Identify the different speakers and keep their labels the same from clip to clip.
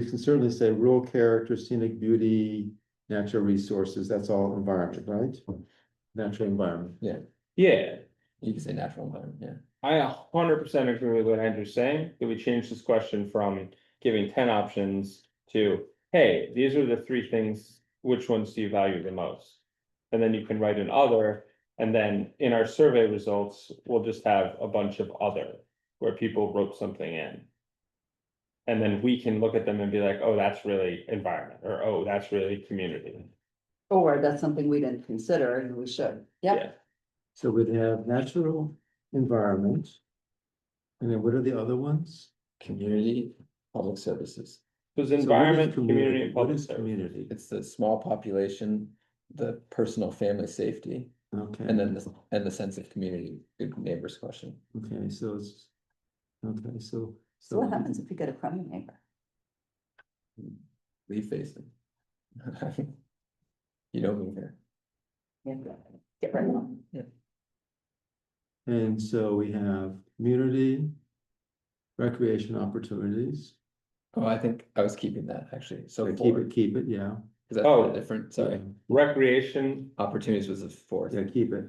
Speaker 1: We can certainly say rural character, scenic beauty, natural resources, that's all environment, right? Natural environment.
Speaker 2: Yeah,
Speaker 3: Yeah,
Speaker 2: you can say natural environment, yeah.
Speaker 3: I a hundred percent agree with what Andrew's saying, that we change this question from giving ten options to, hey, these are the three things, which ones do you value the most? And then you can write an other, and then in our survey results, we'll just have a bunch of other, where people wrote something in. And then we can look at them and be like, oh, that's really environment, or oh, that's really community.
Speaker 4: Or that's something we didn't consider and we should. Yep,
Speaker 1: So we'd have natural environment. And then what are the other ones?
Speaker 2: Community, public services.
Speaker 3: Because
Speaker 1: So what is
Speaker 3: environment, community, and
Speaker 1: What
Speaker 3: public
Speaker 1: is
Speaker 3: service.
Speaker 1: community?
Speaker 2: It's the small population, the personal family safety,
Speaker 1: Okay.
Speaker 2: and then the, and the sense of community, good neighbors question.
Speaker 1: Okay, so it's. Okay, so,
Speaker 4: so what
Speaker 1: so,
Speaker 4: happens if you get a crummy neighbor?
Speaker 2: Leave facing. You don't move here.
Speaker 4: You have to Get rid of them.
Speaker 1: and so we have community. Recreation opportunities,
Speaker 2: Oh, I think I was keeping that actually, so
Speaker 1: Like, keep
Speaker 2: four,
Speaker 1: it, keep it, yeah.
Speaker 2: because
Speaker 3: Oh.
Speaker 2: that's different, sorry,
Speaker 3: Recreation,
Speaker 2: opportunities was the fourth.
Speaker 1: Yeah, keep it,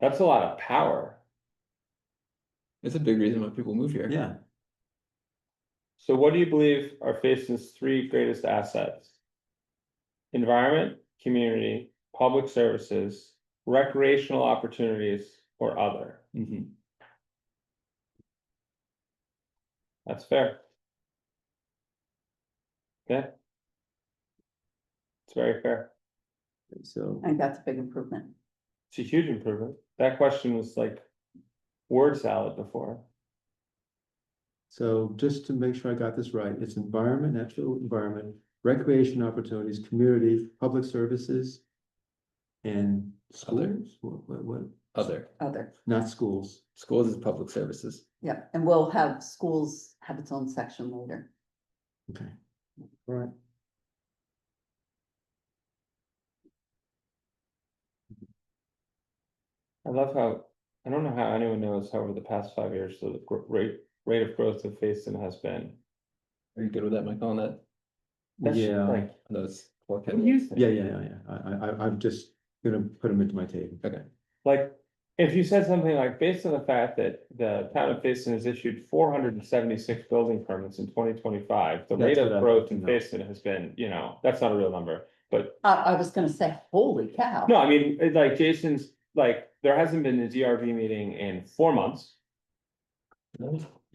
Speaker 3: that's a lot of power.
Speaker 2: It's a big reason why people move here.
Speaker 1: yeah,
Speaker 3: So what do you believe are Faceton's three greatest assets? Environment, community, public services, recreational opportunities, or other?
Speaker 2: Mhm.
Speaker 3: That's fair. Yeah. It's very fair.
Speaker 1: so,
Speaker 4: I think that's a big improvement.
Speaker 3: It's a huge improvement. That question was like word salad before.
Speaker 1: so just to make sure I got this right, it's environment, natural environment. Recreation opportunities, community, public services. And schools, what, what, what,
Speaker 2: Other,
Speaker 4: Other,
Speaker 1: not schools,
Speaker 2: schools is public services,
Speaker 4: yep, and we'll have schools have its own section later.
Speaker 1: okay, all right.
Speaker 3: I love how, I don't know how anyone knows how over the past five years, the gr- rate, rate of growth of Facein has been.
Speaker 2: are you good with that, Michael, on that,
Speaker 3: That's
Speaker 1: Yeah.
Speaker 3: like
Speaker 2: on those? four
Speaker 3: What do
Speaker 2: categories?
Speaker 3: you think?
Speaker 1: Yeah, yeah, yeah, yeah, I, I, I- I'm just gonna put them into my table.
Speaker 2: Okay,
Speaker 3: Like, if you said something like, based on the fact that the town of Facein has issued four hundred and seventy-six building permits in twenty twenty-five, the rate
Speaker 1: That's what
Speaker 3: of
Speaker 1: I'm
Speaker 3: growth in
Speaker 1: thinking of.
Speaker 3: Facein has been, you know, that's not a real number.
Speaker 4: I, I was gonna say, holy cow.
Speaker 3: No, I mean, it's like Jason's, like, there hasn't been a DRV meeting in four months.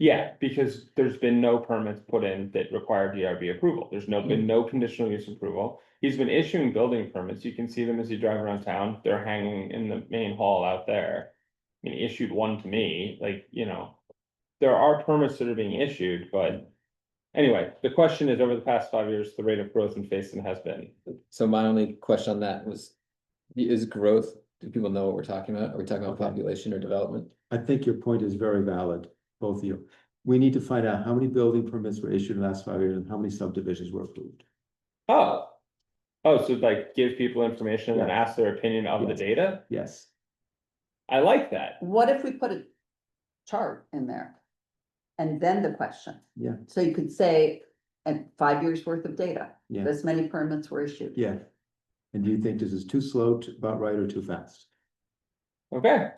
Speaker 3: Yeah, because there's been no permits put in that require DRB approval. There's no, been no conditional use approval. He's been issuing building permits. You can see them as you drive around town. They're hanging in the main hall out there. I mean, he issued one to me, like, you know, there are permits that are being issued, but anyway, the question is, over the past five years, the rate of growth in Facein has been.
Speaker 2: so my only question on that was, is growth, do people know what we're talking about, are we talking about
Speaker 1: Okay.
Speaker 2: population or development?
Speaker 1: I think your point is very valid, both of you. We need to find out how many building permits were issued in the last five years and how many subdivisions were approved.
Speaker 3: Oh, oh, so like give people information and ask their opinion of the
Speaker 1: Yes.
Speaker 3: data?
Speaker 1: Yes,
Speaker 3: I like that.
Speaker 4: What if we put a chart in there? And then the question.
Speaker 1: Yeah.
Speaker 4: So you could say, and five years worth of data,
Speaker 1: Yeah.
Speaker 4: this many permits were issued.
Speaker 1: yeah. And do you think this is too slow, too- about right, or too fast?
Speaker 3: Okay.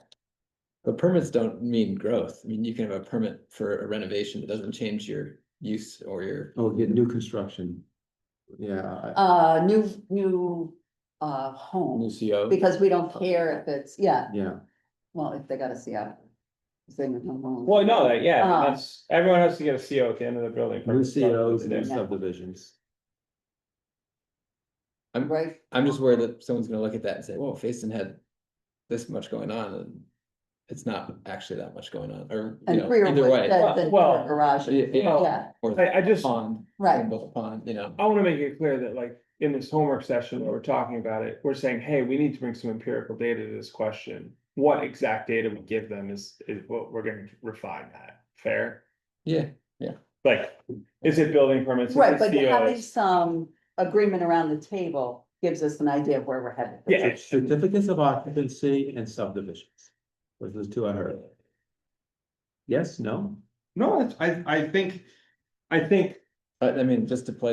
Speaker 2: But permits don't mean growth, I mean, you can have a permit for a renovation, it doesn't change your use or your,
Speaker 1: Oh, get new construction. Yeah, I-
Speaker 4: Uh, new, new, uh, home,
Speaker 2: CO.
Speaker 4: because we don't care if it's, yeah,
Speaker 1: yeah,
Speaker 4: well, if they gotta see out. Well,
Speaker 3: Well, no, that, yeah,
Speaker 4: Um,
Speaker 3: that's, everyone has to get a CO at the end of the building.
Speaker 1: new
Speaker 3: permit, so
Speaker 1: COs,
Speaker 3: they're-
Speaker 1: new subdivisions.
Speaker 4: Right,
Speaker 2: I'm just worried that someone's gonna look at that and say, whoa, Facein had this much going on, and it's not actually that much going on, or, you
Speaker 4: and
Speaker 2: know,
Speaker 4: Greer
Speaker 2: either
Speaker 4: would
Speaker 2: way.
Speaker 3: Well-
Speaker 4: said the
Speaker 3: well,
Speaker 4: garage,
Speaker 2: Yeah, yeah,
Speaker 3: well,
Speaker 4: yeah,
Speaker 2: Or
Speaker 3: I, I just, I
Speaker 2: pond,
Speaker 4: right,
Speaker 2: both a pond, you know,
Speaker 3: wanna make it clear that like, in this homework session where we're talking about it, we're saying, hey, we need to bring some empirical data to this question. What exact data we give them is, is what we're gonna refine that, fair?
Speaker 2: yeah,
Speaker 3: Like, is it building permits? Is
Speaker 4: right,
Speaker 3: it
Speaker 4: but having
Speaker 3: COs?
Speaker 4: some agreement around the table gives us an idea of where we're headed.
Speaker 3: Yeah.
Speaker 1: Certificates of occupancy and subdivisions. Was those two I heard? Yes, no?
Speaker 3: No, it's- I, I think, I think
Speaker 2: But I mean, just to play